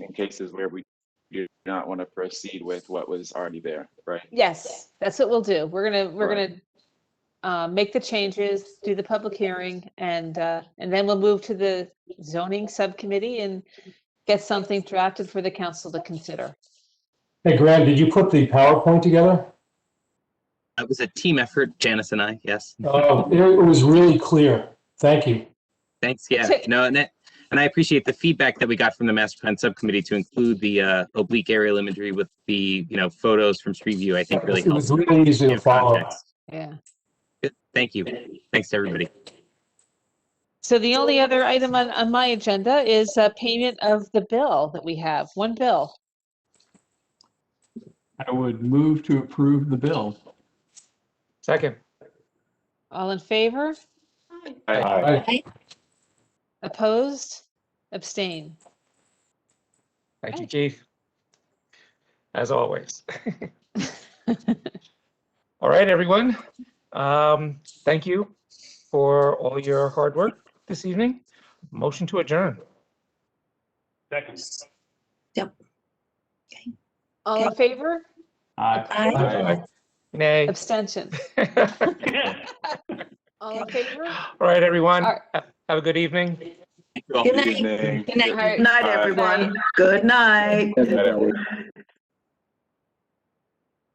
in cases where we do not want to proceed with what was already there, right? Yes, that's what we'll do. We're gonna, we're Correct. gonna uh, make the changes, do the public hearing, and, uh, and then we'll move to the zoning subcommittee and get something drafted for the council to consider. Hey, Graham, did you put the PowerPoint together? That was a team effort, Janice and I. Yes. Oh, it it was really clear. Thank you. Thanks. Yeah. So- No, and that, and I appreciate the feedback that we got from the master plan subcommittee to include the uh, oblique aerial imagery with the you know photos from street view. I think really It helps. was really easy to give follow. context. Yeah. Good. Thank you. Thanks to everybody. So the only other item on, on my agenda is uh, payment of the bill that we have, one bill. I would move to approve the bill. Second. All in favor? I- Aye. Opposed? Abstain? Thank you, Keith. As always. All right, everyone. Um, thank you for all your hard work this evening. Motion to adjourn. All in favor? Aye. Nay. Abstention? All All in favor? right, everyone. All Ha- Have a good evening. Thank you all. Good Good night. evening. right. Night, Bye. everyone. Good night. Good night, everyone.